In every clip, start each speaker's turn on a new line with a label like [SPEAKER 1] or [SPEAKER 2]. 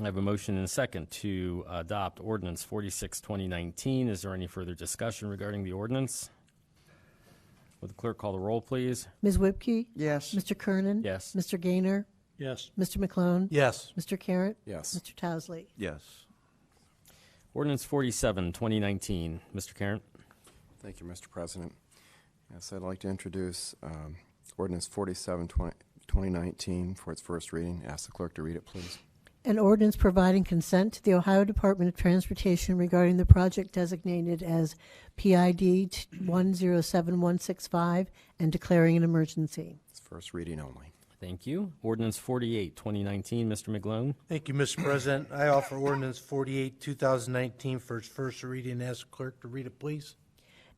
[SPEAKER 1] I have a motion and a second to adopt ordinance 46, 2019. Is there any further discussion regarding the ordinance? Would the clerk call the roll, please?
[SPEAKER 2] Ms. Whipke?
[SPEAKER 3] Yes.
[SPEAKER 2] Mr. Kernan?
[SPEAKER 1] Yes.
[SPEAKER 2] Mr. Gaynor?
[SPEAKER 4] Yes.
[SPEAKER 2] Mr. McClone?
[SPEAKER 4] Yes.
[SPEAKER 2] Mr. Carratt?
[SPEAKER 5] Yes.
[SPEAKER 2] Mr. Towesley?
[SPEAKER 3] Yes.
[SPEAKER 1] Ordinance 47, 2019. Mr. Karen?
[SPEAKER 5] Thank you, Mr. President. Yes, I'd like to introduce um, ordinance 47, 20 2019 for its first reading. Ask the clerk to read it, please.
[SPEAKER 2] An ordinance providing consent to the Ohio Department of Transportation regarding the project designated as PID 107165 and declaring an emergency.
[SPEAKER 5] It's first reading only.
[SPEAKER 1] Thank you. Ordinance 48, 2019. Mr. McGlone?
[SPEAKER 4] Thank you, Mr. President. I offer ordinance 48, 2019 for its first reading. Ask clerk to read it, please.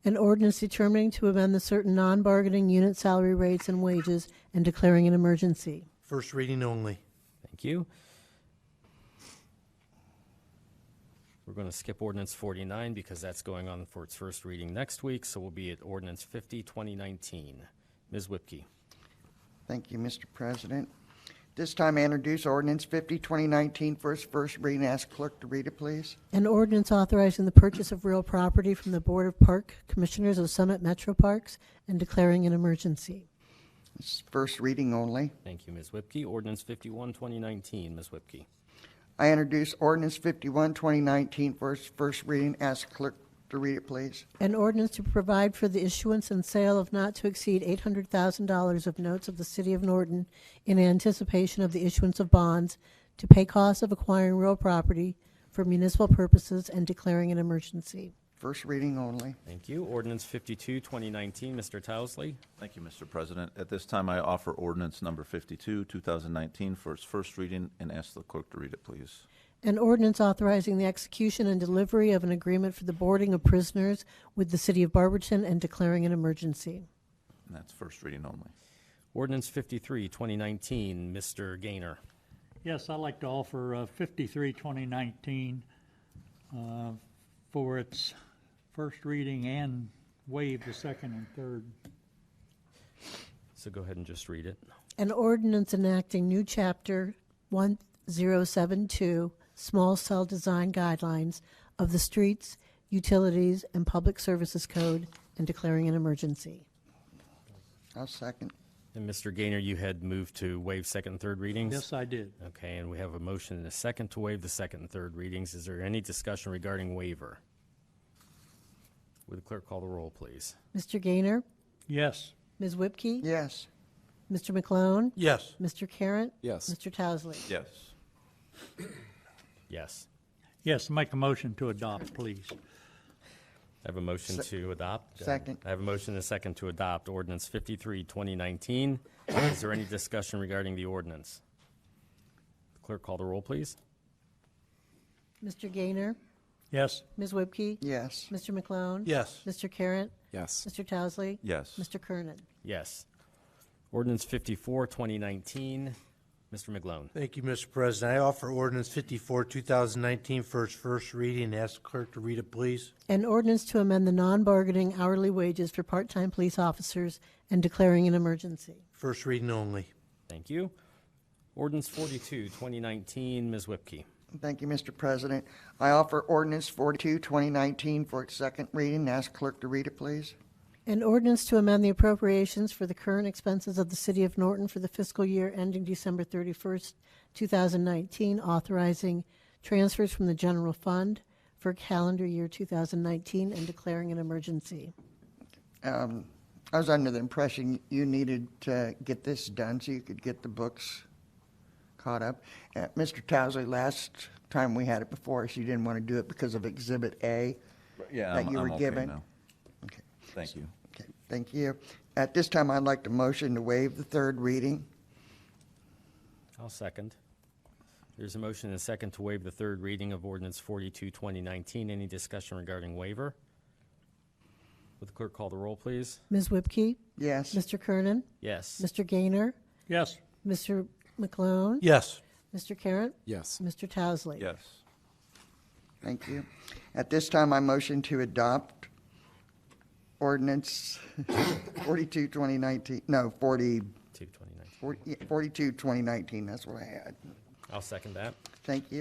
[SPEAKER 2] An ordinance determining to amend the certain non-bargaining unit salary rates and wages and declaring an emergency.
[SPEAKER 4] First reading only.
[SPEAKER 1] Thank you. We're going to skip ordinance 49 because that's going on for its first reading next week, so we'll be at ordinance 50, 2019. Ms. Whipke?
[SPEAKER 3] Thank you, Mr. President. This time I introduce ordinance 50, 2019 for its first reading. Ask clerk to read it, please.
[SPEAKER 2] An ordinance authorizing the purchase of real property from the Board of Park Commissioners of Summit Metro Parks and declaring an emergency.
[SPEAKER 3] This is first reading only.
[SPEAKER 1] Thank you, Ms. Whipke. Ordinance 51, 2019. Ms. Whipke?
[SPEAKER 3] I introduce ordinance 51, 2019 for its first reading. Ask clerk to read it, please.
[SPEAKER 2] An ordinance to provide for the issuance and sale of not to exceed $800,000 of notes of the City of Norton in anticipation of the issuance of bonds to pay costs of acquiring real property for municipal purposes and declaring an emergency.
[SPEAKER 3] First reading only.
[SPEAKER 1] Thank you. Ordinance 52, 2019. Mr. Towesley?
[SPEAKER 6] Thank you, Mr. President. At this time, I offer ordinance number 52, 2019, for its first reading, and ask the clerk to read it, please.
[SPEAKER 2] An ordinance authorizing the execution and delivery of an agreement for the boarding of prisoners with the City of Barberton and declaring an emergency.
[SPEAKER 6] And that's first reading only.
[SPEAKER 1] Ordinance 53, 2019. Mr. Gaynor?
[SPEAKER 7] Yes, I'd like to offer uh, 53, 2019 uh, for its first reading and waive the second and third.
[SPEAKER 1] So go ahead and just read it.
[SPEAKER 2] An ordinance enacting new chapter 1072, small cell design guidelines of the Streets, Utilities, and Public Services Code and declaring an emergency.
[SPEAKER 3] I'll second.
[SPEAKER 1] And Mr. Gaynor, you had moved to waive second and third readings?
[SPEAKER 7] Yes, I did.
[SPEAKER 1] Okay, and we have a motion and a second to waive the second and third readings. Is there any discussion regarding waiver? Would the clerk call the roll, please?
[SPEAKER 2] Mr. Gaynor?
[SPEAKER 7] Yes,
[SPEAKER 2] Ms. Whipke?
[SPEAKER 3] Yes.
[SPEAKER 2] Mr. McClone?
[SPEAKER 4] Yes.
[SPEAKER 2] Mr. Carratt?
[SPEAKER 5] Yes.
[SPEAKER 2] Mr. Towesley?
[SPEAKER 6] Yes.
[SPEAKER 1] Yes.
[SPEAKER 7] yes, make a motion to adopt, please.
[SPEAKER 1] I have a motion to adopt.
[SPEAKER 3] Second.
[SPEAKER 1] I have a motion and a second to adopt ordinance 53, 2019. Is there any discussion regarding the ordinance? Clerk, call the roll, please.
[SPEAKER 2] Mr. Gaynor?
[SPEAKER 7] Yes,
[SPEAKER 2] Ms. Whipke?
[SPEAKER 3] Yes.
[SPEAKER 2] Mr. McClone?
[SPEAKER 4] Yes.
[SPEAKER 2] Mr. Carratt?
[SPEAKER 5] Yes.
[SPEAKER 2] Mr. Towesley?
[SPEAKER 6] Yes.
[SPEAKER 2] Mr. Kernan?
[SPEAKER 1] Yes. Ordinance 54, 2019. Mr. McGlone.
[SPEAKER 4] Thank you, Mr. President. I offer ordinance 54, 2019 for its first reading. Ask clerk to read it, please.
[SPEAKER 2] An ordinance to amend the non-bargaining hourly wages for part-time police officers and declaring an emergency.
[SPEAKER 4] First reading only.
[SPEAKER 1] Thank you. Ordinance 42, 2019. Ms. Whipke.
[SPEAKER 3] Thank you, Mr. President. I offer ordinance 42, 2019 for its second reading. Ask clerk to read it, please.
[SPEAKER 2] An ordinance to amend the appropriations for the current expenses of the City of Norton for the fiscal year ending December 31st, 2019, authorizing transfers from the general fund for calendar year 2019 and declaring an emergency.
[SPEAKER 3] Um, I was under the impression you needed to get this done so you could get the books caught up. Uh, Mr. Towsley, last time we had it before us, you didn't want to do it because of Exhibit A.
[SPEAKER 6] Yeah,
[SPEAKER 3] That
[SPEAKER 6] I'm-
[SPEAKER 3] you
[SPEAKER 6] I'm
[SPEAKER 3] were
[SPEAKER 6] okay
[SPEAKER 3] given.
[SPEAKER 6] now.
[SPEAKER 3] Okay.
[SPEAKER 6] Thank you.
[SPEAKER 3] Okay, thank you. At this time, I'd like to motion to waive the third reading.
[SPEAKER 1] I'll second. There's a motion and a second to waive the third reading of ordinance 42, 2019. Any discussion regarding waiver? Would the clerk call the roll, please?
[SPEAKER 2] Ms. Whipke?
[SPEAKER 3] Yes.
[SPEAKER 2] Mr. Kernan?
[SPEAKER 1] Yes.
[SPEAKER 2] Mr. Gaynor?
[SPEAKER 7] yes,
[SPEAKER 2] Mr. McLone?
[SPEAKER 4] Yes.
[SPEAKER 2] Mr. Carratt?
[SPEAKER 5] Yes.
[SPEAKER 2] Mr. Towesley?
[SPEAKER 6] Yes.
[SPEAKER 3] Thank you. At this time, I motion to adopt ordinance 42, 2019, no, 40,
[SPEAKER 1] 2, 2019.
[SPEAKER 3] 40 yeah, 42, 2019, that's what I had.
[SPEAKER 1] I'll second that.
[SPEAKER 3] Thank you.